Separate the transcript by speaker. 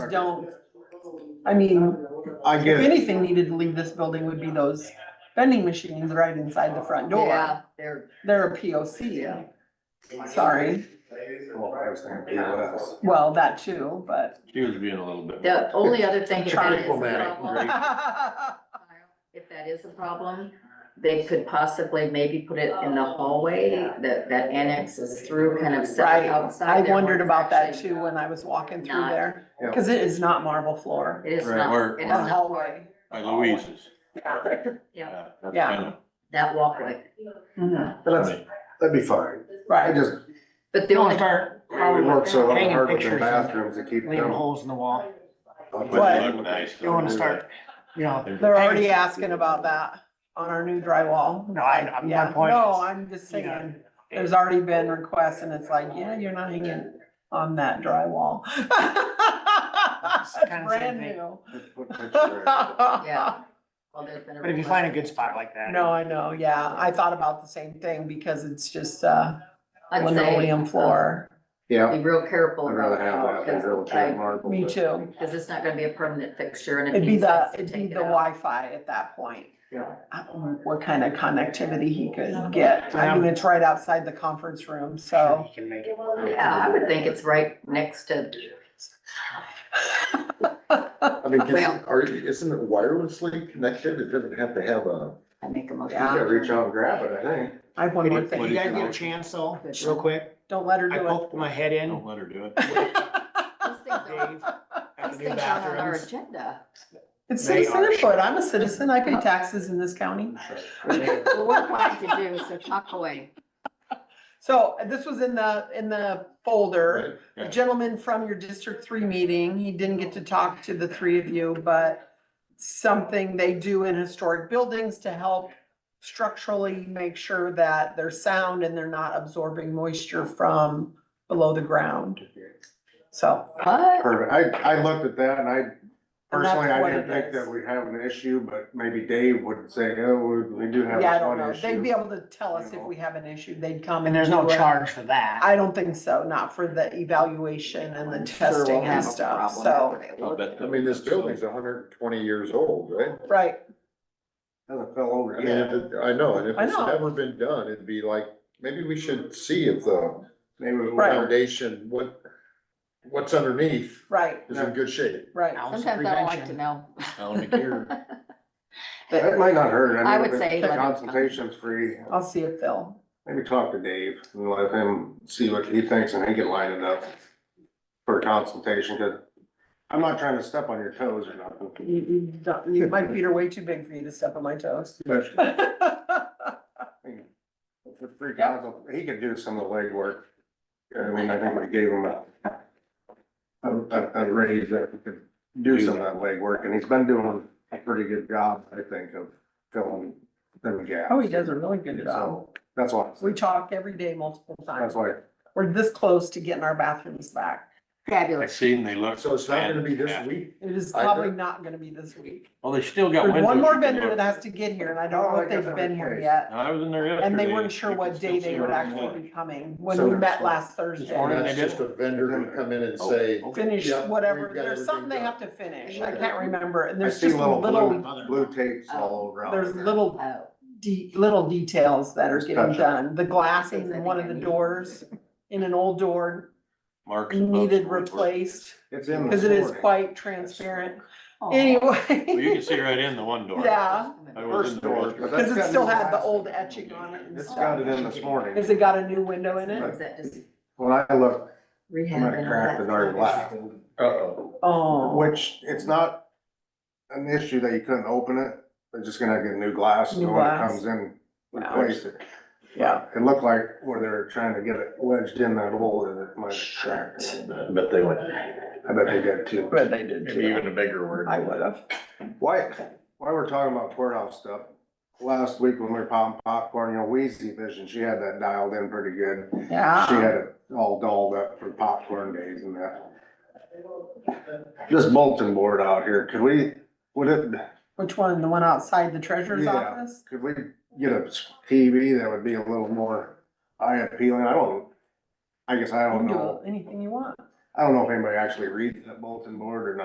Speaker 1: don't, I mean,
Speaker 2: I
Speaker 1: if
Speaker 2: get it.
Speaker 1: anything needed to leave this building would be those vending machines right inside the front door.
Speaker 3: Yeah, they're,
Speaker 1: They're a POC, sorry.
Speaker 2: Well, I was thinking POS.
Speaker 1: Well, that too, but.
Speaker 4: She was being a little bit.
Speaker 3: the only other thing if that is a
Speaker 4: Diplomatic,
Speaker 3: problem, if that is a problem, they could possibly maybe put it in the hallway that, that annexes through kind of set
Speaker 1: Right.
Speaker 3: outside.
Speaker 1: I
Speaker 3: there where
Speaker 1: wondered
Speaker 3: it's
Speaker 1: about that
Speaker 3: actually-
Speaker 1: too when I was walking through
Speaker 3: Not-
Speaker 1: there,
Speaker 2: Yeah.
Speaker 1: cause it is not marble floor. Uh-huh.
Speaker 3: It is
Speaker 4: Right,
Speaker 3: not,
Speaker 4: or-
Speaker 3: it is
Speaker 4: or
Speaker 1: Or
Speaker 3: not,
Speaker 1: hallway.
Speaker 4: By Louise's.
Speaker 3: yeah,
Speaker 4: that's
Speaker 1: Yeah.
Speaker 4: kind of-
Speaker 3: that walkway.
Speaker 1: Mhm,
Speaker 2: But that's, that'd be fine. I
Speaker 1: Right.
Speaker 2: just,
Speaker 3: But the
Speaker 5: They want
Speaker 3: only,
Speaker 5: to start
Speaker 2: we work so
Speaker 5: hanging
Speaker 2: hard with
Speaker 5: pictures
Speaker 2: the
Speaker 5: and
Speaker 2: bathrooms to keep
Speaker 5: leaving
Speaker 2: them.
Speaker 5: holes in the wall.
Speaker 4: But they look nice.
Speaker 5: You want to start, you know,
Speaker 1: They're already asking about that on our new drywall.
Speaker 5: No, I- I'm- my
Speaker 1: Yeah.
Speaker 5: point
Speaker 1: No,
Speaker 5: is,
Speaker 1: I'm just
Speaker 5: you know.
Speaker 1: saying, there's already been requests and it's like, yeah, you're not hanging on that drywall. It's
Speaker 5: kinda
Speaker 1: Brand
Speaker 5: same thing.
Speaker 1: new.
Speaker 2: Just put picture in.
Speaker 1: Yeah.
Speaker 3: Yeah. well, there's been a
Speaker 5: but if you find a good spot like that.
Speaker 1: No, I know, yeah, I thought about the same thing because it's just, uh,
Speaker 3: I'd say,
Speaker 1: linoleum
Speaker 3: um,
Speaker 1: floor.
Speaker 2: Yeah,
Speaker 3: Be real careful.
Speaker 2: I'd rather have
Speaker 3: about
Speaker 2: that than real
Speaker 3: because I-
Speaker 2: cheap marble.
Speaker 1: Me
Speaker 2: but-
Speaker 1: too.
Speaker 3: Cause it's not gonna be a permanent fixture and it
Speaker 1: It'd be
Speaker 3: needs
Speaker 1: the,
Speaker 3: us to
Speaker 1: it'd be
Speaker 3: take it
Speaker 1: the
Speaker 3: out.
Speaker 1: Wi-Fi at that point.
Speaker 2: Yeah.
Speaker 1: I don't know what kind of connectivity he could get. I mean, it's right outside the conference room, so.
Speaker 5: You can make it.
Speaker 3: Yeah, I would think it's right next to,
Speaker 2: I mean,
Speaker 3: Well-
Speaker 2: can- are, you- isn't it wirelessly connected? It doesn't have to have a,
Speaker 3: I make a
Speaker 2: you
Speaker 3: motion.
Speaker 2: gotta reach out and grab it, I think.
Speaker 1: I have one more
Speaker 5: If you
Speaker 1: thing.
Speaker 5: guys get a chance though, real quick,
Speaker 1: Don't let her
Speaker 5: I
Speaker 1: do it.
Speaker 5: poked my head in,
Speaker 4: Don't let her do it.
Speaker 3: Those things are-
Speaker 5: Dave, at
Speaker 3: those
Speaker 5: the new
Speaker 3: things aren't on our
Speaker 5: bathrooms.
Speaker 3: agenda.
Speaker 1: It's
Speaker 5: They
Speaker 1: citizen
Speaker 5: are-
Speaker 1: input. I'm a citizen. I pay taxes in this county.
Speaker 3: Well, We're trying to do, so talk away.
Speaker 1: So uh, this was in the, in the folder.
Speaker 2: Right.
Speaker 1: A gentleman from your District Three meeting, he didn't get to talk to the three of you, but something they do in historic buildings to help structurally make sure that they're sound and they're not absorbing moisture from below the ground. So,
Speaker 3: What?
Speaker 2: Perfect. I, I looked at that and I,
Speaker 1: And that's
Speaker 2: personally, I
Speaker 1: what
Speaker 2: didn't
Speaker 1: it
Speaker 2: think
Speaker 1: is.
Speaker 2: that we'd have an issue, but maybe Dave would say, oh, we, we do have
Speaker 1: yeah, I
Speaker 2: this one
Speaker 1: don't know. They'd be
Speaker 2: issue.
Speaker 1: able to tell us if we have an issue. They'd come.
Speaker 5: And there's no
Speaker 1: do it.
Speaker 5: charge for that.
Speaker 1: I don't think so, not for the evaluation and the
Speaker 2: Sure, we'll
Speaker 1: testing and
Speaker 2: have a
Speaker 1: stuff, so,
Speaker 4: I'll bet
Speaker 2: I
Speaker 4: that-
Speaker 2: mean, this building's hundred and twenty years old, right?
Speaker 1: right,
Speaker 2: Hasn't fell over
Speaker 6: I mean, if it- I know, and if
Speaker 1: I
Speaker 6: it's
Speaker 1: know.
Speaker 6: never been done, it'd be like, maybe we should see if the
Speaker 2: Maybe we
Speaker 1: Right.
Speaker 6: foundation, what, what's underneath
Speaker 1: right,
Speaker 6: is in good shape.
Speaker 1: right.
Speaker 5: Ounce of
Speaker 3: Sometimes I don't like to
Speaker 5: prevention.
Speaker 3: know.
Speaker 4: I don't care.
Speaker 2: That might not hurt.
Speaker 3: I
Speaker 2: mean,
Speaker 3: would
Speaker 2: if
Speaker 3: say
Speaker 2: the
Speaker 3: let it come.
Speaker 2: Consultation's free.
Speaker 1: I'll see if they'll,
Speaker 2: Maybe talk to Dave and let him see what he thinks and he can line it up for a consultation, cause I'm not trying to step on your toes or nothing.
Speaker 1: you, you don't, you, my feet are way too big for you to step on my toes.
Speaker 2: but,
Speaker 1: Right,
Speaker 2: I mean, It's a free council, he could do some of the legwork. I mean, I think we gave him a a, a- a raise that he could do some of that legwork and he's been doing a pretty good job, I think, of filling them gaps.
Speaker 1: Oh, he does a really good job.
Speaker 2: So, That's why,
Speaker 1: We talk every day multiple
Speaker 2: that's
Speaker 1: times.
Speaker 2: why
Speaker 1: We're this close to getting our bathrooms back.
Speaker 4: I
Speaker 3: Fabulous.
Speaker 4: seen they look.
Speaker 6: So it's not gonna be this
Speaker 4: fantastic.
Speaker 6: week?
Speaker 1: It is
Speaker 6: I
Speaker 1: probably not gonna be this week.
Speaker 4: Well, they still got
Speaker 1: There's
Speaker 4: windows.
Speaker 1: one
Speaker 4: you
Speaker 1: more
Speaker 4: can
Speaker 1: vendor
Speaker 4: look-
Speaker 1: that has to get here and I don't
Speaker 2: Oh,
Speaker 1: know
Speaker 2: I got
Speaker 1: if they've been
Speaker 2: that
Speaker 1: here
Speaker 2: place.
Speaker 1: yet.
Speaker 4: I was in there yesterday.
Speaker 1: And they weren't sure
Speaker 4: You
Speaker 1: what
Speaker 4: could
Speaker 1: day
Speaker 4: still
Speaker 1: they
Speaker 4: see
Speaker 1: would
Speaker 4: right
Speaker 1: actually
Speaker 4: away.
Speaker 1: be coming when
Speaker 2: So
Speaker 1: we
Speaker 2: there's
Speaker 1: met
Speaker 2: some-
Speaker 1: last
Speaker 4: Or
Speaker 1: Thursday.
Speaker 4: morning.
Speaker 6: That's
Speaker 4: they do.
Speaker 6: just a vendor gonna come in and
Speaker 4: Oh,
Speaker 6: say,
Speaker 4: okay.
Speaker 1: Finish
Speaker 6: Yeah,
Speaker 1: whatever,
Speaker 6: we've got
Speaker 1: there's something they
Speaker 6: everything
Speaker 1: have to finish. I can't remember. And
Speaker 2: I
Speaker 1: there's
Speaker 2: see
Speaker 1: just
Speaker 2: little blue,
Speaker 1: little, uh,
Speaker 2: blue tapes all around.
Speaker 1: there's
Speaker 2: there.
Speaker 1: little
Speaker 3: Oh,
Speaker 1: de- little details that are
Speaker 2: Just
Speaker 1: getting
Speaker 2: touch up.
Speaker 1: done. The glasses in one of the doors, in an old door,
Speaker 4: Mark's
Speaker 1: needed
Speaker 4: supposed to work.
Speaker 1: replaced,
Speaker 2: It's in.
Speaker 1: because
Speaker 2: this
Speaker 1: it is
Speaker 2: morning.
Speaker 1: quite transparent.
Speaker 3: oh.
Speaker 4: Well, you
Speaker 1: Anyway,
Speaker 4: can see right in the one door.
Speaker 1: yeah,
Speaker 4: I was in
Speaker 2: First
Speaker 4: there
Speaker 2: door.
Speaker 4: yesterday.
Speaker 2: but that's
Speaker 1: because it
Speaker 2: got
Speaker 1: still
Speaker 2: new
Speaker 1: had the
Speaker 2: glass.
Speaker 1: old etching on it and
Speaker 2: It's
Speaker 1: stuff.
Speaker 2: got it in this morning.
Speaker 1: Has it got a new window in
Speaker 3: Is
Speaker 1: it?
Speaker 3: that just
Speaker 2: When I looked, I
Speaker 3: rehab
Speaker 2: might
Speaker 3: and
Speaker 2: have
Speaker 3: all
Speaker 2: cracked
Speaker 3: that
Speaker 2: the darn
Speaker 3: stuff?
Speaker 2: glass,
Speaker 6: uh-oh.
Speaker 1: Oh,
Speaker 2: which it's not an issue that you couldn't open it. They're just gonna get new glass
Speaker 1: New
Speaker 2: and when it
Speaker 1: glass.
Speaker 2: comes in,
Speaker 1: Wow.
Speaker 2: replace it.
Speaker 1: yeah.
Speaker 2: It looked like where they were trying to get it wedged in that hole that it might have cracked. a little bit.
Speaker 6: I bet they went,
Speaker 2: I bet they did too.
Speaker 1: But they did too.
Speaker 6: a bigger word.
Speaker 1: I would have.
Speaker 2: Why, why we're talking about courthouse stuff, last week when we were popping popcorn, you know, Wheezy Vision, she had that dialed in pretty good. She had
Speaker 1: Yeah.
Speaker 2: it all dolled up for popcorn days and that. This bulletin board out here, could we, would it,
Speaker 1: Which one? The one outside the treasurer's
Speaker 2: Yeah.
Speaker 1: office?
Speaker 2: could we get a TV that would be a little more eye appealing? I don't, I guess I
Speaker 1: You
Speaker 2: don't
Speaker 1: can
Speaker 2: know.
Speaker 1: do anything you want.
Speaker 2: I don't know if anybody actually reads that bulletin board or not.